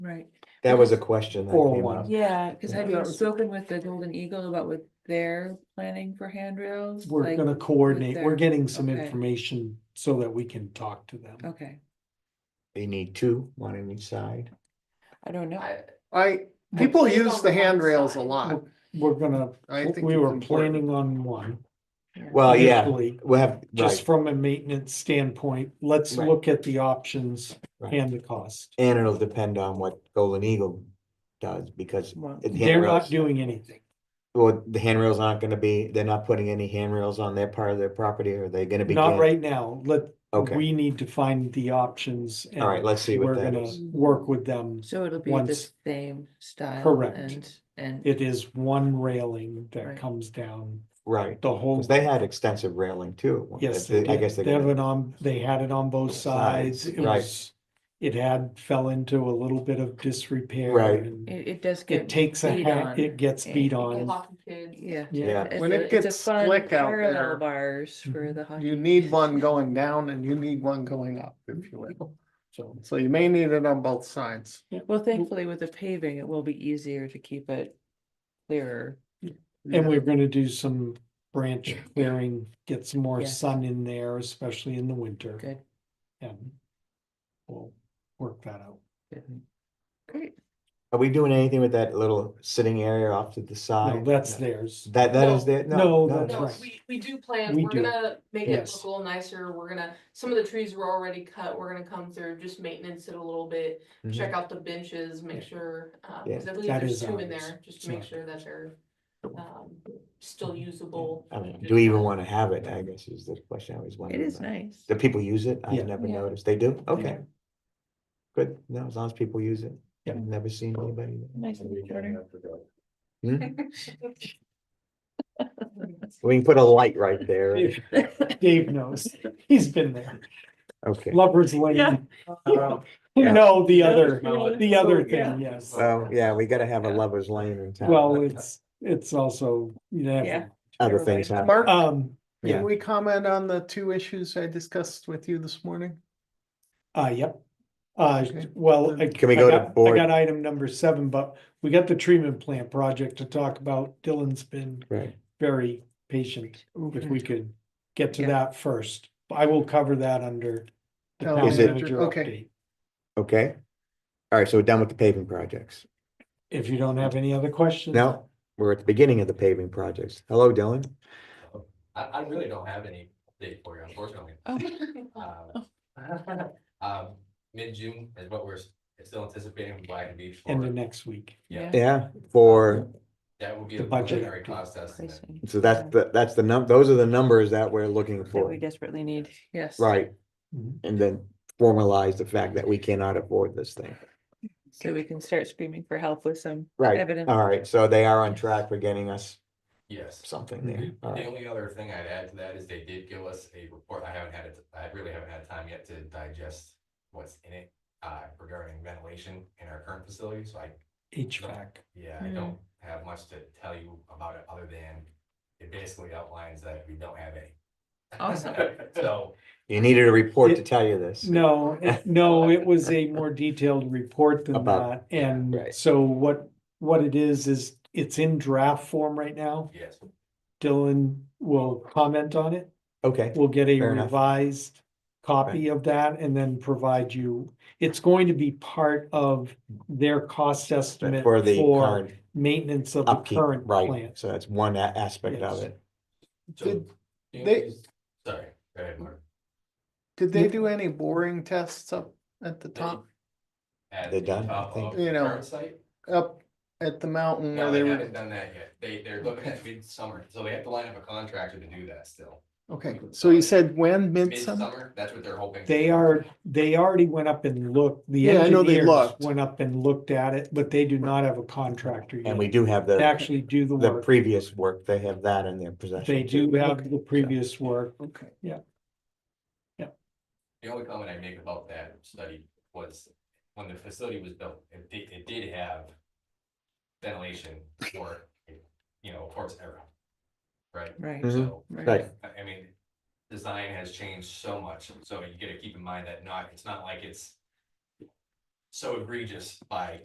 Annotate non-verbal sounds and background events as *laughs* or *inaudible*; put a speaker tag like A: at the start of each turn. A: Right,
B: That was a question that
C: Or
B: came
C: one.
B: up.
A: yeah, cause have
B: Yeah.
A: you spoken with the Golden Eagle about what they're planning for handrails?
C: We're
A: Like,
C: gonna coordinate, we're
A: there.
C: getting some
A: Okay.
C: information so that we can talk to them.
A: Okay,
B: They need two, one on each side.
A: I don't know,
D: I- I, people use the handrails a lot.
C: We're gonna,
D: I think
C: we
D: it's
C: were
D: important.
C: planning on one.
B: Well, Uh, yeah,
C: initially,
B: we'll have,
C: Just
B: right,
C: from a maintenance standpoint, let's
B: Right.
C: look at the options
B: Right.
C: and the cost.
B: and it'll depend on what Golden Eagle does, because
A: Well,
B: the
C: They're not
B: handrails,
C: doing anything.
B: well, the handrails aren't gonna be, they're not putting any handrails on their part of their property, or they gonna be?
C: Not
B: getting-
C: right now. Let,
B: Okay,
C: we need to find the options. and
B: all right, let's see what
C: We're
B: that
C: gonna
B: is.
C: work with them.
A: so it'll be the
C: Once-
A: same style.
C: Correct.
A: And, and,
C: It is one railing that
A: Right.
C: comes down
B: Right,
C: the whole.
B: because they had extensive railing too. at one-
C: Oh. Yes,
B: they-
C: they
B: I guess
C: did.
B: they're
C: They have
B: gonna,
C: it on, they had it on both
B: Sides,
C: sides. It
B: right.
C: was, it had, fell into a little bit of disrepair.
B: Right.
C: and
A: it, it does get.
C: It takes a
A: beat
C: hat,
A: on.
C: it gets
A: Yeah.
C: beat
E: People
C: on.
E: walking kids.
A: Yeah.
B: yeah,
A: It's
D: When
A: a-
D: it
A: it's a
D: gets
A: fun
D: slick out
A: parallel
D: there,
A: Bars for the. hockey
D: You need
A: kids.
D: one going down and you need one going up, if you will. So, so you may need it on both sides.
A: Well, thankfully with the paving, it will be easier to keep it clearer.
C: And we're gonna do some branch clearing, get some more
A: Yeah.
C: sun in there, especially in the winter.
A: Good,
C: And we'll work that out.
A: great.
B: are we doing anything with that little sitting area off to the
C: No,
B: side?
C: that's theirs.
B: That, that
E: No.
B: is there?
C: No,
B: No, no,
C: that's
B: no.
E: No,
C: right.
E: we, we do plan,
C: We
E: we're
C: do.
E: gonna make it
C: Yes.
E: look a little nicer, we're gonna, some of the trees were already cut, we're gonna come through, just maintenance it a little bit.
B: Mhm.
E: Check out the benches, make
C: Mm-hmm. Yeah.
E: sure, um,
B: Yeah.
E: cause I believe
C: That
E: there's
C: is
E: two in
C: ours.
E: there, just
C: It's
E: to make
C: not
E: sure that they're, um, still usable.
B: I mean, do we even wanna have it, I guess is the question I always wonder.
A: It is nice.
B: Do people use it?
C: Yeah.
B: I've never
A: Yeah.
B: noticed. They do? Okay. Good. No, as long as people use it.
C: Yeah.
B: I've never seen anybody.
A: Nice little corner.
B: Hmm?
A: *laughs*
B: We can put a light right there.
C: Dave knows, he's
B: *laughs*
C: been there.
B: Okay.
C: Lover's Lane.
B: Yeah.
C: No, the
A: Yeah.
C: other,
A: Yeah.
C: the
B: Oh,
C: other
A: Yeah.
C: thing, yes.
B: So, yeah, we gotta have a lover's lane in town.
C: Well, it's, it's also, you
A: Yeah.
C: know,
B: Other things happen.
D: Mark,
C: um, yeah.
D: can we comment on the two issues I discussed with you this morning?
C: uh, yep. Uh,
D: Okay.
C: well. I-
B: Can we
C: I
B: go to
C: got- I
B: board?
C: got item number seven, but we got the treatment plant project to talk about. Dylan's been
B: Right.
C: very patient. If we could get to
A: Yeah.
C: that first, I will cover that under. the
D: Town
C: town
B: Is it-
C: manager
D: okay.
C: update.
B: Okay. All right, so we're done with the paving projects.
C: If you don't have any other questions.
B: Now, we're at the beginning of the paving projects. Hello, Dylan.
F: I, I really don't have any date for you, unfortunately.
A: Oh. *laughs*
E: *laughs*
F: Um, Um, *laughs* mid-June is what we're s- still anticipating from Black and Beach
C: End of
F: for,
C: next week.
F: yeah,
B: Yeah, for,
F: that would be
C: The
F: a
C: budget.
F: preliminary cost estimate.
A: Pricing
B: so that's, the that's the num, those are the numbers that we're looking
A: That we
B: for.
A: desperately need, yes.
B: Right.
C: Mhm.
B: And then formalize the fact that we cannot afford this thing.
A: So we can start screaming for help with some
B: Right,
A: evidence.
B: all right, so they are on track for getting us
F: Yes.
B: something there,
C: Mhm.
B: all
F: The
B: right,
F: only other thing I'd add to that is they did give us a report. I haven't had it, I really haven't had time yet to digest what's in it uh, regarding ventilation in our current facility, so I,
C: HVAC.
F: yeah, I
A: Hmm.
F: don't have much to tell you about it other than it basically outlines that we don't have any.
A: Awesome.
F: *laughs* So
B: you needed a report to
C: It-
B: tell you *laughs* this,
C: No, it- no, it was a more detailed report than that,
B: About-
C: and
B: right.
C: so what, what it is, is it's in draft form right now.
F: Yes,
C: Dylan will comment on it,
B: okay,
C: we'll get a
B: Fair enough.
C: revised copy of that and then provide you. It's going to be part of their cost estimate
B: for the
C: for
B: current
C: maintenance of the
B: upkeep,
C: current
B: right,
C: plant.
B: so that's one a- aspect of
C: Yes.
B: it.
F: so,
D: Did
F: you
D: they-
F: know, just- sorry, go ahead, Mark.
D: Did they do any boring tests up at the top,
F: At
B: They're
F: the
B: done, I
F: top
B: think.
F: of the
D: You know,
F: current site?
D: up at the mountain
F: No,
D: where
F: they
D: they were?
F: haven't done that yet, they, they're looking at midsummer, so they have to line up a contractor to do that still.
D: Okay, so you said when, midsummer?
F: Midsummer, that's what they're hoping. to
C: They
F: do.
C: are, they already went up and looked, the
D: Yeah, I know they
C: engineers
D: looked.
C: went up and looked at it, but they do not have a contractor yet.
B: And we do have
C: to
B: the,
C: actually do the
B: the
C: work.
B: previous work, they have that in their possession.
C: They
B: too.
C: do have the previous work.
D: Okay.
F: The only comment I make about that study was, when the facility was built, it did, it did have ventilation for, you know, of course, era. Right?
A: Right.
B: Mhm.
F: So,
B: Right.
F: I, I mean, design has changed so much, so you gotta keep in mind that not, it's not like it's so egregious by